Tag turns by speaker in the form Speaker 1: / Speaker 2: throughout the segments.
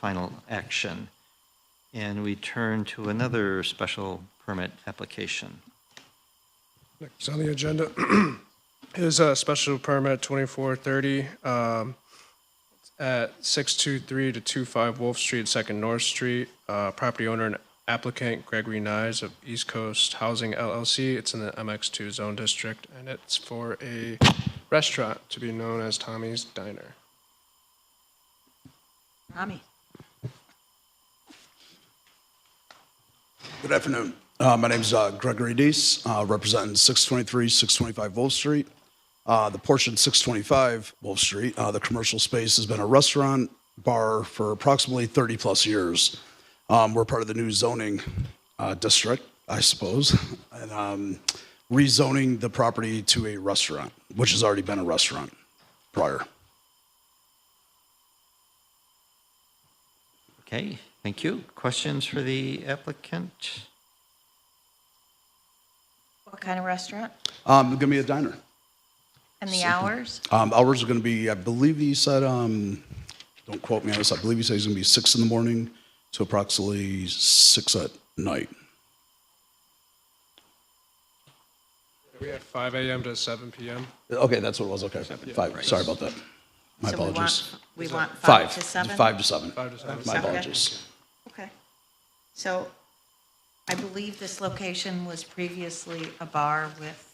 Speaker 1: final action. And we turn to another special permit application.
Speaker 2: Next on the agenda is a special permit 2430 um, at 623 to 25 Wolf Street, Second North Street. Uh, Property owner and applicant Gregory Nyes of East Coast Housing LLC. It's in the MX2 Zone District, and it's for a restaurant to be known as Tommy's Diner.
Speaker 3: Tommy.
Speaker 4: Good afternoon. Uh, My name's uh, Gregory Dees, uh, representing 623, 625 Wolf Street. Uh, The portion 625 Wolf Street, uh, the commercial space has been a restaurant, bar for approximately 30-plus years. Um, We're part of the new zoning uh, district, I suppose, and um, rezoning the property to a restaurant, which has already been a restaurant prior.
Speaker 1: Okay, thank you. Questions for the applicant?
Speaker 3: What kind of restaurant?
Speaker 4: Um, Give me a diner.
Speaker 3: And the hours?
Speaker 4: Um, hours are going to be, I believe he said, um, don't quote me on this, I believe he said he's going to be six in the morning to approximately six at night.
Speaker 2: We have 5 AM to 7 PM.
Speaker 4: Okay, that's what it was, okay. Five, sorry about that. My
Speaker 3: So we want-
Speaker 4: apologies.
Speaker 3: We want five to seven?
Speaker 4: Five to seven.
Speaker 2: Five to seven.
Speaker 4: My
Speaker 3: Okay.
Speaker 4: apologies.
Speaker 3: Okay. So I believe this location was previously a bar with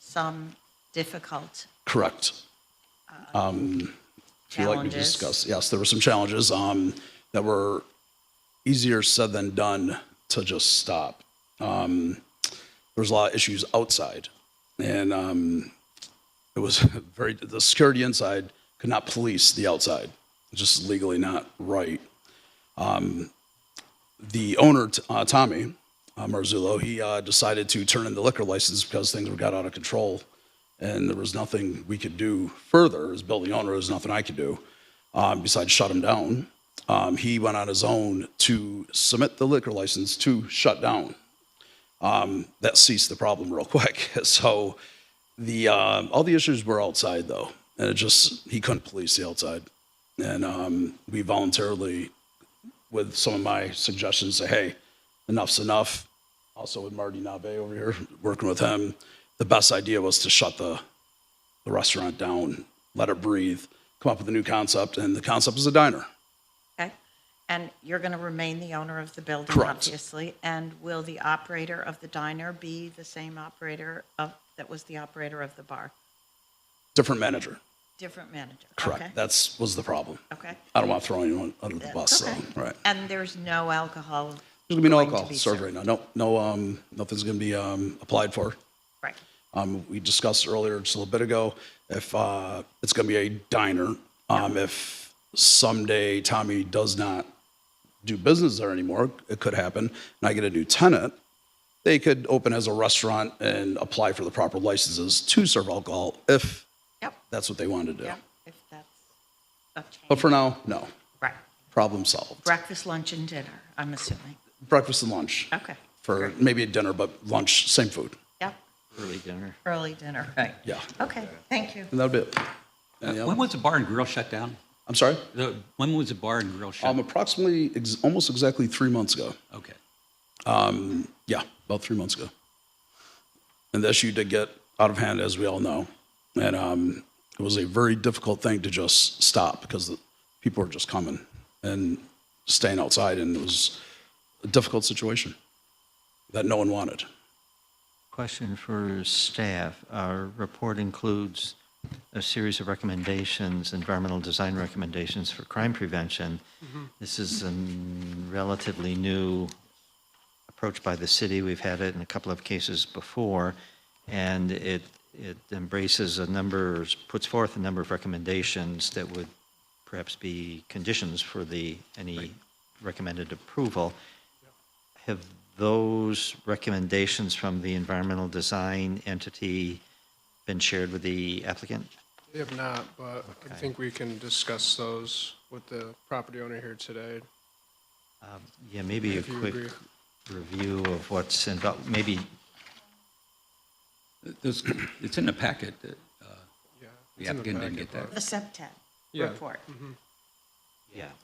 Speaker 3: some difficult
Speaker 4: Correct. If you'd like me to
Speaker 3: challenges.
Speaker 4: discuss, yes, there were some challenges um, that were easier said than done to just stop. Um, there was a lot of issues outside, and um, it was very the security inside could not police the outside, just legally not right. Um, the owner t- uh, Tommy uh, Marzullo, he uh, decided to turn in the liquor license because things were got out of control, and there was nothing we could do further as building owner. There was nothing I could do um, besides shut him down. Um, he went on his own to submit the liquor license to shut down Um, that ceased the problem real quick. So the um, all the issues were outside though, and it just he couldn't police the outside, and um, we voluntarily, with some of my suggestions, say, hey, enough's enough. Also with Marty Nave over here, working with him, the best idea was to shut the the restaurant down, let it breathe, come up with a new concept, and the concept is a diner.
Speaker 3: Okay. And you're going to remain the owner of the building,
Speaker 4: Correct.
Speaker 3: obviously. And will the operator of the diner be the same operator of, that was the operator of the bar?
Speaker 4: Different manager.
Speaker 3: Different manager?
Speaker 4: Correct.
Speaker 3: Okay.
Speaker 4: That's was the problem.
Speaker 3: Okay.
Speaker 4: I don't want to throw anyone under the bus,
Speaker 3: Okay.
Speaker 4: so right.
Speaker 3: And there's no alcohol?
Speaker 4: There's gonna be no
Speaker 3: going to
Speaker 4: alcohol
Speaker 3: be
Speaker 4: served right now. No, no, um, nothing's gonna be, um, applied for.
Speaker 3: Right.
Speaker 4: Um, we discussed earlier just a little bit ago, if, uh, it's gonna be a diner. Um, if someday Tommy does not do business there anymore, it could happen, and I get a new tenant, they could open as a restaurant and apply for the proper licenses to serve alcohol if
Speaker 3: Yep.
Speaker 4: that's what they wanted to do.
Speaker 3: Yep, if that's a
Speaker 4: But
Speaker 3: change.
Speaker 4: for now, no.
Speaker 3: Right.
Speaker 4: Problem solved.
Speaker 3: Breakfast, lunch, and dinner, I'm assuming.
Speaker 4: Breakfast and lunch.
Speaker 3: Okay.
Speaker 4: For
Speaker 3: great.
Speaker 4: maybe a dinner, but lunch, same food.
Speaker 3: Yep,
Speaker 1: Early dinner.
Speaker 3: early dinner, right.
Speaker 4: Yeah.
Speaker 3: Okay, thank you.
Speaker 4: And that'll be it. Any
Speaker 5: When
Speaker 4: other-
Speaker 5: was the bar and grill shut down?
Speaker 4: I'm sorry?
Speaker 5: The- When was the bar and grill shut?
Speaker 4: Um, approximately, ex- almost exactly three months ago.
Speaker 5: Okay.
Speaker 4: Yeah, about three months ago. And the issue did get out of hand, as we all know. And um, it was a very difficult thing to just stop because the people were just coming and staying outside, and it was a difficult situation that no one wanted.
Speaker 1: Question for staff. Our report includes a series of recommendations, environmental design recommendations for crime prevention. This is a relatively new approach by the city. We've had it in a couple of cases before, and it, it embraces a number, puts forth a number of recommendations that would perhaps be conditions for the, any recommended approval. Have those recommendations from the environmental design entity been shared with the applicant?
Speaker 2: If not, but I think we can discuss those with the property owner here today.
Speaker 1: Yeah, maybe a
Speaker 2: If you
Speaker 1: quick
Speaker 2: agree.
Speaker 1: review of what's involved, maybe,
Speaker 5: There's- It's in the packet. that, uh,
Speaker 2: Yeah.
Speaker 5: The applicant didn't get that.
Speaker 3: The septet
Speaker 2: Yeah.
Speaker 3: report.
Speaker 1: yeah.